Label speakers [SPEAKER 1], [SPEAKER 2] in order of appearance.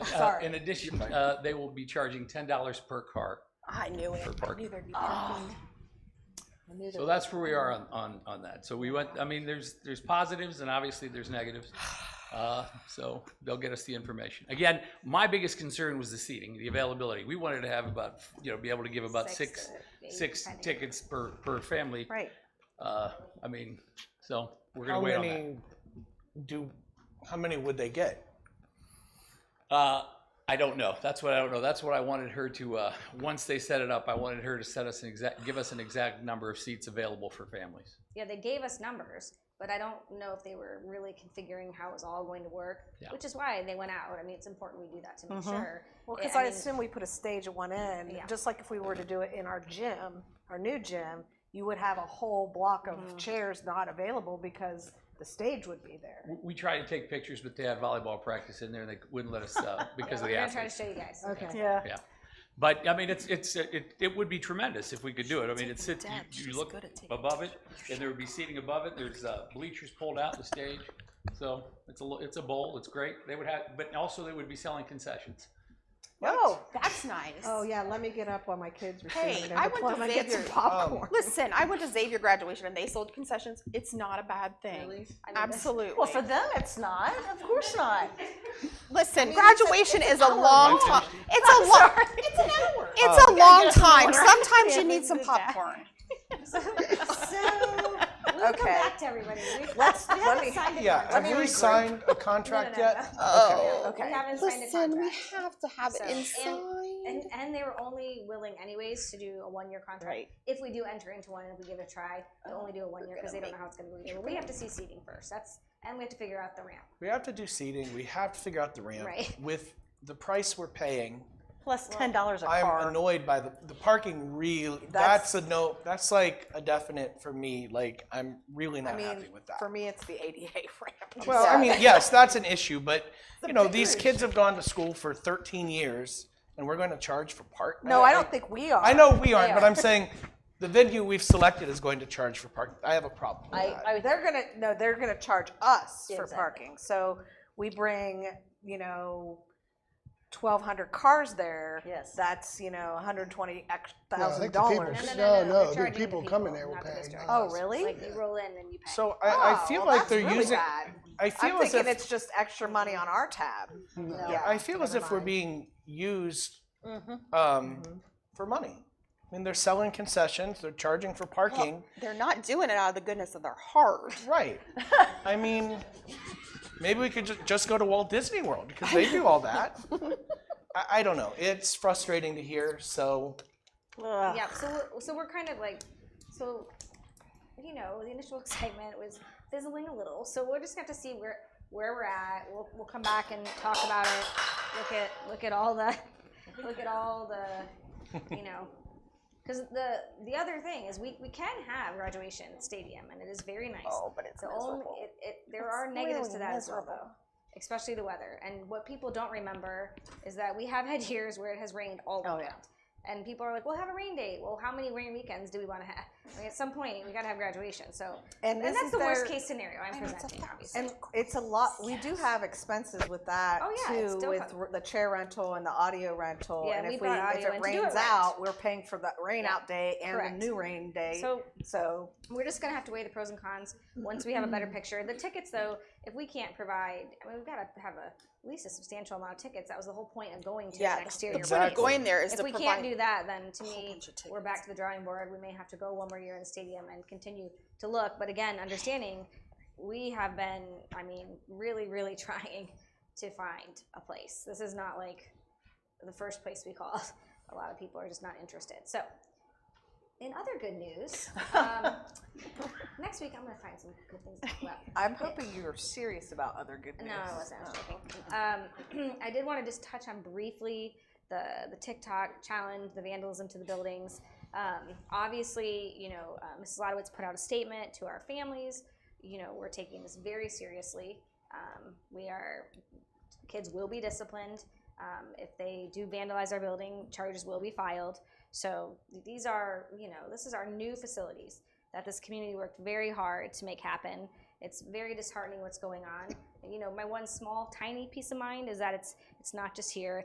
[SPEAKER 1] Sorry.
[SPEAKER 2] Uh, In addition, uh, they will be charging ten dollars per car.
[SPEAKER 1] I knew it.
[SPEAKER 2] For
[SPEAKER 1] I
[SPEAKER 2] parking.
[SPEAKER 1] knew there'd be
[SPEAKER 3] Oh.
[SPEAKER 1] parking. I knew
[SPEAKER 2] So
[SPEAKER 1] there-
[SPEAKER 2] that's where we are on, on, on that. So we went, I mean, there's, there's positives and obviously there's negatives. Uh, so they'll get us the information. Again, my biggest concern was the seating, the availability. We wanted to have about, you know, be able to give about six,
[SPEAKER 3] to eight,
[SPEAKER 2] six
[SPEAKER 3] depending.
[SPEAKER 2] tickets per, per family.
[SPEAKER 1] Right.
[SPEAKER 2] Uh, I mean, so we're gonna
[SPEAKER 4] How
[SPEAKER 2] wait on that.
[SPEAKER 4] many do, how many would they get?
[SPEAKER 2] Uh, I don't know. That's what I don't know. That's what I wanted her to, uh, once they set it up, I wanted her to set us an exact, give us an exact number of seats available for families.
[SPEAKER 3] Yeah, they gave us numbers, but I don't know if they were really configuring how it was all going to work,
[SPEAKER 2] Yeah.
[SPEAKER 3] which is why they went out. I mean, it's important we do that to make sure.
[SPEAKER 1] Mm-hmm. Well,
[SPEAKER 3] It-
[SPEAKER 1] because
[SPEAKER 3] I
[SPEAKER 1] I
[SPEAKER 3] mean-
[SPEAKER 1] assume we put a stage at one end,
[SPEAKER 3] Yeah.
[SPEAKER 1] just like if we were to do it in our gym, our new gym, you would have a whole block of chairs not available because the stage would be there.
[SPEAKER 2] We- We tried to take pictures, but they had volleyball practice in there, and they wouldn't let us uh, because
[SPEAKER 3] Yeah,
[SPEAKER 2] of
[SPEAKER 3] we're
[SPEAKER 2] the
[SPEAKER 3] gonna try to
[SPEAKER 2] athletes.
[SPEAKER 3] show you guys.
[SPEAKER 1] Okay. Yeah.
[SPEAKER 2] Yeah, but I mean, it's it's it, it would be tremendous if we could do it. I mean, it's it, you, you look above it, and there would be seating above it. There's uh, bleachers pulled out the stage, so it's a lo- it's a bowl. It's great. They would have, but also they would be selling concessions.
[SPEAKER 1] Oh,
[SPEAKER 5] That's nice.
[SPEAKER 1] oh yeah, let me get up while my kids were singing
[SPEAKER 5] Hey,
[SPEAKER 1] their
[SPEAKER 5] I went to
[SPEAKER 1] diploma and get some
[SPEAKER 5] Xavier.
[SPEAKER 1] popcorn.
[SPEAKER 5] Listen, I went to Xavier graduation and they sold concessions. It's not a bad thing.
[SPEAKER 3] I mean,
[SPEAKER 5] Absolutely.
[SPEAKER 1] Well, for them, it's not, of course not. mean,
[SPEAKER 5] Listen,
[SPEAKER 1] it's a-
[SPEAKER 5] graduation
[SPEAKER 1] it's
[SPEAKER 5] is
[SPEAKER 1] an
[SPEAKER 5] a
[SPEAKER 1] hour
[SPEAKER 5] long
[SPEAKER 2] long.
[SPEAKER 5] time. It's a long. It's an hour. It's a long
[SPEAKER 1] get some
[SPEAKER 5] time.
[SPEAKER 1] water.
[SPEAKER 5] Sometimes
[SPEAKER 1] Yeah,
[SPEAKER 5] you need
[SPEAKER 1] we
[SPEAKER 5] some
[SPEAKER 1] did that.
[SPEAKER 5] popcorn.
[SPEAKER 1] So,
[SPEAKER 3] We'll come
[SPEAKER 1] Okay.
[SPEAKER 3] back to everybody. We-
[SPEAKER 1] Let's-
[SPEAKER 3] we
[SPEAKER 1] let
[SPEAKER 3] haven't
[SPEAKER 1] me-
[SPEAKER 3] signed a
[SPEAKER 4] Yeah,
[SPEAKER 3] contract.
[SPEAKER 4] have we signed a contract yet? Oh.
[SPEAKER 3] We
[SPEAKER 1] okay.
[SPEAKER 3] haven't signed a
[SPEAKER 6] Listen, we
[SPEAKER 3] contract.
[SPEAKER 6] have to have
[SPEAKER 3] So,
[SPEAKER 6] it
[SPEAKER 3] and-
[SPEAKER 6] inside.
[SPEAKER 3] And, and they were only willing anyways to do a one-year contract.
[SPEAKER 5] Right.
[SPEAKER 3] If we do enter into one and we give it a try, they'll only do a one-year because they don't know how it's gonna go either. We have to see seating first. That's, and we have to figure out the ramp.
[SPEAKER 4] We have to do seating, we have to figure out the ramp.
[SPEAKER 3] Right.
[SPEAKER 4] With the price we're paying,
[SPEAKER 1] Plus ten dollars a
[SPEAKER 4] I'm
[SPEAKER 1] car.
[SPEAKER 4] annoyed by the, the parking really,
[SPEAKER 1] That's-
[SPEAKER 4] that's a no, that's like a definite for me, like, I'm really
[SPEAKER 1] I
[SPEAKER 4] not
[SPEAKER 1] mean,
[SPEAKER 4] happy with that.
[SPEAKER 1] for me, it's the ADA ramp.
[SPEAKER 4] Well, I mean, yes, that's an issue, but, you know, these kids have gone to school for thirteen years, and we're gonna charge for parking?
[SPEAKER 1] No, I don't think we are.
[SPEAKER 4] I know we aren't,
[SPEAKER 1] They
[SPEAKER 4] but
[SPEAKER 1] are.
[SPEAKER 4] I'm saying, the venue we've selected is going to charge for parking, I have a problem with that.
[SPEAKER 1] they're gonna no, they're gonna charge us for
[SPEAKER 3] Oh Exactly.
[SPEAKER 1] parking. So we bring, you know, twelve hundred cars there.
[SPEAKER 7] Yes.
[SPEAKER 1] That's you know, one hundred twenty
[SPEAKER 8] No, I
[SPEAKER 1] thousand
[SPEAKER 8] think the people-
[SPEAKER 1] dollars.
[SPEAKER 3] No, no, no,
[SPEAKER 8] No, no,
[SPEAKER 3] no.
[SPEAKER 8] the
[SPEAKER 3] They're charging
[SPEAKER 8] people
[SPEAKER 3] the
[SPEAKER 8] coming
[SPEAKER 3] people,
[SPEAKER 8] there were
[SPEAKER 3] not the
[SPEAKER 8] paying
[SPEAKER 3] district.
[SPEAKER 8] us.
[SPEAKER 1] Oh, really?
[SPEAKER 3] Like you roll in and you pay.
[SPEAKER 4] So I, I feel
[SPEAKER 1] Oh,
[SPEAKER 4] like
[SPEAKER 1] that's
[SPEAKER 4] they're
[SPEAKER 1] really
[SPEAKER 4] using,
[SPEAKER 1] bad.
[SPEAKER 4] I feel
[SPEAKER 1] I'm
[SPEAKER 4] as
[SPEAKER 1] thinking
[SPEAKER 4] if
[SPEAKER 1] it's just extra money on our tab. Yeah,
[SPEAKER 4] I feel as
[SPEAKER 1] never
[SPEAKER 4] if we're
[SPEAKER 1] mind. Mm-hmm.
[SPEAKER 4] being used um, for money. I mean, they're selling concessions, they're charging for parking.
[SPEAKER 7] They're not doing it out of the goodness of their heart.
[SPEAKER 4] Right. I mean, maybe we could ju- just go to Walt Disney World because they do all that. I, I don't know. It's frustrating to hear. So,
[SPEAKER 1] Ugh.
[SPEAKER 3] Yeah, so we're, so we're kind of like, so, you know, the initial excitement was fizzling a little. So we'll just have to see where where we're at. We'll, we'll come back and talk about it. Look at look at all the look at all the you know. Because the the other thing is we, we can have graduation at stadium and it is very nice.
[SPEAKER 7] Oh, but it's
[SPEAKER 3] the only,
[SPEAKER 7] miserable.
[SPEAKER 3] it, it, there are
[SPEAKER 7] It's
[SPEAKER 3] negatives to
[SPEAKER 7] really
[SPEAKER 3] that as well
[SPEAKER 7] miserable.
[SPEAKER 3] though, especially the weather. And what people don't remember is that we have had years where it has rained all
[SPEAKER 1] Oh,
[SPEAKER 3] weekend.
[SPEAKER 1] yeah.
[SPEAKER 3] And people are like, "Well, have a rain date." Well, how many rain weekends do we want to have? I mean, at some point, we got to have graduation. So,
[SPEAKER 1] And
[SPEAKER 3] and
[SPEAKER 1] this
[SPEAKER 3] that's
[SPEAKER 1] is
[SPEAKER 3] the worst
[SPEAKER 1] their-
[SPEAKER 3] case scenario I'm presenting, obviously.
[SPEAKER 1] And it's a lot. We do have expenses with that
[SPEAKER 3] Oh, yeah, it's
[SPEAKER 1] too,
[SPEAKER 3] still
[SPEAKER 1] with
[SPEAKER 3] co-
[SPEAKER 1] r- the chair rental and the audio rental.
[SPEAKER 3] Yeah,
[SPEAKER 1] and
[SPEAKER 3] we
[SPEAKER 1] if we
[SPEAKER 3] brought
[SPEAKER 1] if
[SPEAKER 3] audio
[SPEAKER 1] it
[SPEAKER 3] in to do it
[SPEAKER 1] rains
[SPEAKER 3] right.
[SPEAKER 1] out, we're paying for the rain
[SPEAKER 3] Yeah.
[SPEAKER 1] out day and
[SPEAKER 3] Correct.
[SPEAKER 1] the new rain day.
[SPEAKER 3] So-
[SPEAKER 1] so
[SPEAKER 3] We're just gonna have to weigh the pros and cons once we have a better picture. The tickets, though, if we can't provide, I mean, we've got to have a at least a substantial amount of tickets. That was the whole point of going to
[SPEAKER 7] Yeah,
[SPEAKER 3] an
[SPEAKER 7] the-
[SPEAKER 3] exterior.
[SPEAKER 7] The point
[SPEAKER 4] Exactly.
[SPEAKER 7] of
[SPEAKER 3] race.
[SPEAKER 7] going there is
[SPEAKER 3] if
[SPEAKER 7] to
[SPEAKER 3] we
[SPEAKER 7] provide.
[SPEAKER 3] can't do that, then to me,
[SPEAKER 7] bunch of
[SPEAKER 3] we're back to the drawing board. We may have to go one more year in stadium and continue to look. But again, understanding we have been, I mean, really, really trying to find a place. This is not like the first place we called. A lot of people are just not interested. So, in other good news, um, next week I'm going to find some good things to talk about.
[SPEAKER 1] I'm hoping you're serious about other good Oh. news.
[SPEAKER 3] No, I wasn't. I was joking. Um, I did want to just touch on briefly the the TikTok challenge, the vandalism to the buildings. Um, obviously, you know, uh, Mrs. Lodowitz put out a statement to our families. You know, we're taking this very seriously. Um, we are kids will be disciplined. Um, if they do vandalize our building, charges will be filed. So these are, you know, this is our new facilities that this community worked very hard to make happen. It's very disheartening what's going on. you know, my one small tiny piece of mind is that it's it's not just here.